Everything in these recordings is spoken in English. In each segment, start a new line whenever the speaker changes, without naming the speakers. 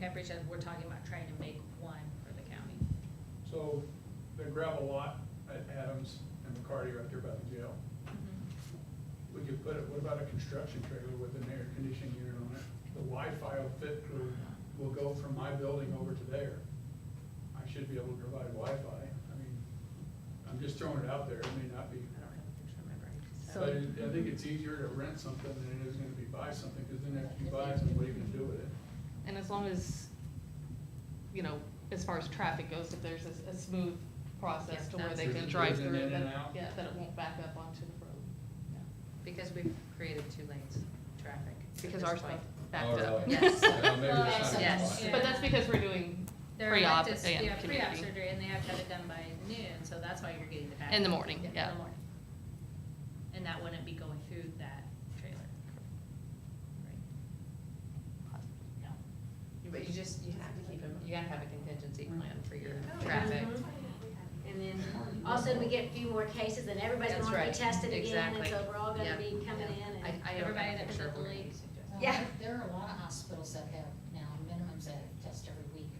Pepperidge, and uh, we're talking about trying to make one for the county.
So the gravel lot at Adams and McCarty are up there by the jail.
Mm-hmm.
We could put, it. what about a construction trailer with an air conditioning unit on it? The Wi-Fi will fit, through- will go from my building over to there. I should be able to provide Wi-Fi. I mean, I'm just throwing it out there. It may not be.
I don't know, I'm trying to remember.
So-
But it- I think it's easier to rent something than it is gonna be buy something, because then after you buy it, then what are you gonna do with it?
And as long as, you know, as far as traffic goes, if there's a, a smooth process
Yeah,
to where they
that's-
can drive
Driven
through,
in and
then,
out.
yeah, that it won't back up onto the road. Yeah.
Because we've created two lanes of traffic. at
Because
this
ours
point.
both backed
Oh,
up.
really?
Yes.
Well, maybe that's not
Yes.
why.
But that's because we're doing
They're
pre-op
elective- yeah,
and
pre-op
community.
surgery, and they have to have it done by noon, so that's why you're getting the package.
In the morning,
In
yeah.
the morning. And that wouldn't be going through that trailer. Right. No.
But you just, you have to keep them, you gotta have a contingency plan for your
Oh,
traffic.
Mm-hmm.
mhm. And then, all of a
Also,
sudden, we get a few more cases, and everybody's
That's
gonna be
right.
tested again, and
Exactly.
so we're all gonna
Yeah.
be coming
Yeah.
in and.
I, I don't
Everybody
have a
that
picture of
was at the
where it
league.
is.
Well,
Yeah.
Um, There are a lot of hospitals that have now minimums that test every week.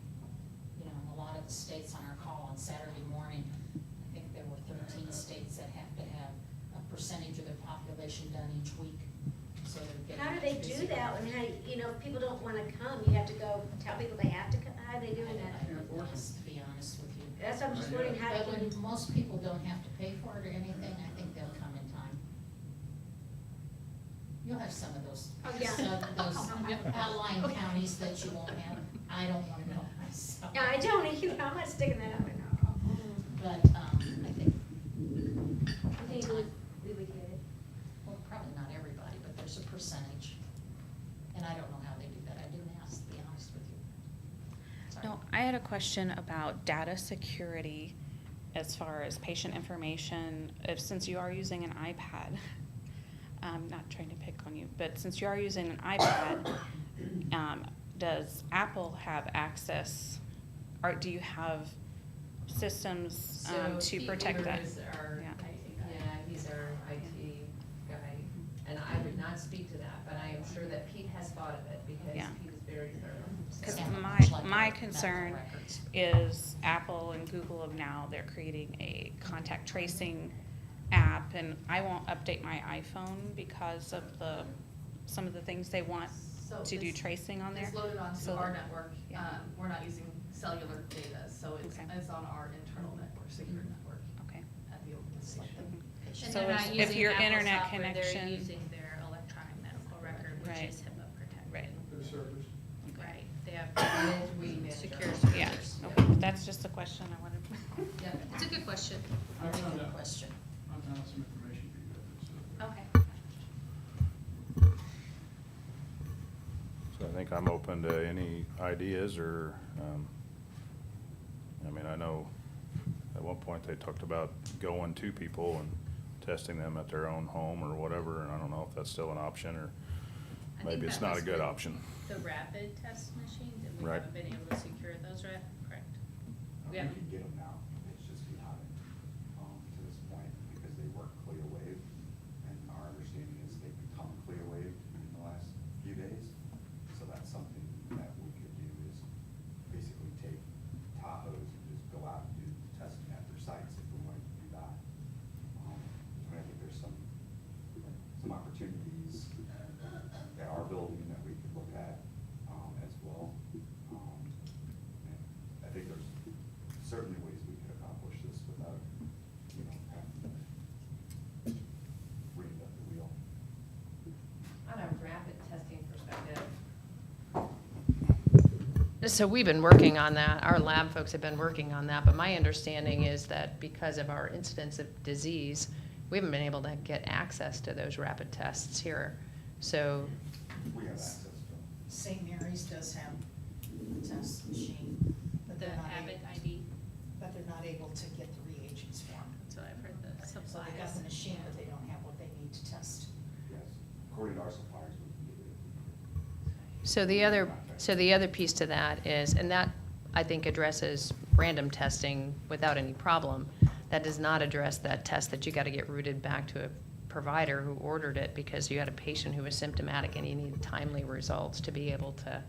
You know, and a lot of the states on our call on Saturday morning, I think there were thirteen states that have to have a percentage of their population done each week. So they're getting.
How do they do
busy.
that when, hey, you know, if people don't wanna come, you have to go tell people they have to come, how are they
I don't
doing that?
know,
Can't force 'em.
To be honest with you.
That's what I'm just
Yeah.
wondering, how
But
can you?
when most people don't have to pay for it or anything, I think they'll come in time. You'll have some of those,
Oh, yeah.
some of those outlying counties that you won't have, I don't wanna know myself.
Yeah, I don't, you know, I'm not sticking that up at all.
But, um, I think,
I think we, we would get it.
well, probably not everybody, but there's a percentage. And I don't know how they do that, I didn't ask, to be honest with you. Sorry.
No, I had a question about data security as far as patient information, if, since you are using an iPad. I'm not trying to pick on you, but since you are using an iPad, um, does Apple have access? Or do you have systems, um,
So
to
Pete
protect
Weaver
that?
is our-
Yeah.
Yeah, he's our IT guy, and I would not speak to that, but I am sure that Pete has thought of it, because
Yeah.
Pete is very thorough.
Because
So-
Yeah,
my-
much like
my
our medical
concern
records.
is Apple and Google have now, they're creating a contact tracing app, and I won't update my iPhone because of the, some of the things they want
So
to do
it's-
tracing on there.
It's loaded onto
So-
our network.
yeah.
Um, we're not using cellular data, so it's,
Okay. Mm-hmm.
it's on our internal network, secure network
Okay.
at the organization.
And
So
they're
if-
not
if
using
your
Apple
internet
software,
connection-
They're using their electronic medical record,
Right.
which is HIPAA protected.
Right.
Their servers.
Right, they have
And we manage our
secure
own
servers.
Yeah,
servers,
okay, that's just a question I wanted.
Yeah,
It's a good question.
I
very
found
good
out,
question.
I found out some information for you guys, so.
Okay.
So I think I'm open to any ideas or, um, I mean, I know at one point they talked about going to people and testing them at their own home or whatever, and I don't know if that's still an option or
I think
maybe it's
that
not a
was
good
the-
option.
The rapid test machines, and we
Right.
haven't been able to secure those, right? Correct. We
You
have,
can get them now, it's just we haven't, um, to this point, because they work clear wave, and our understanding is they've become clear wave in the last few days. So that's something that we could do is basically take Tahoes and just go out and do the testing at their sites if we wanted to do that. Um, But I think there's some, some opportunities at our building that we could look at, um, as well. Um, and I think there's certainly ways we could accomplish this without, you know, having to reinvent the wheel.
On a rapid testing perspective. So we've been working on that, our lab folks have been working on that, but my understanding is that because of our incidence of disease, we haven't been able to get access to those rapid tests here. So
We have access to them.
St. Mary's does have a test machine, but
the
they're not
Abbott
able,
ID,
but they're not able to get the reagents for 'em.
that's what I've heard, the
So
supplies.
they got the machine, but they don't have what they need to test.
Yes, according to our suppliers, we can get it. if we need it.
So the other, so the other piece to that is, and that, I think, addresses random testing without any problem. That does not address that test that you gotta get routed back to a provider who ordered it because you had a patient who was symptomatic and you needed timely results to be able to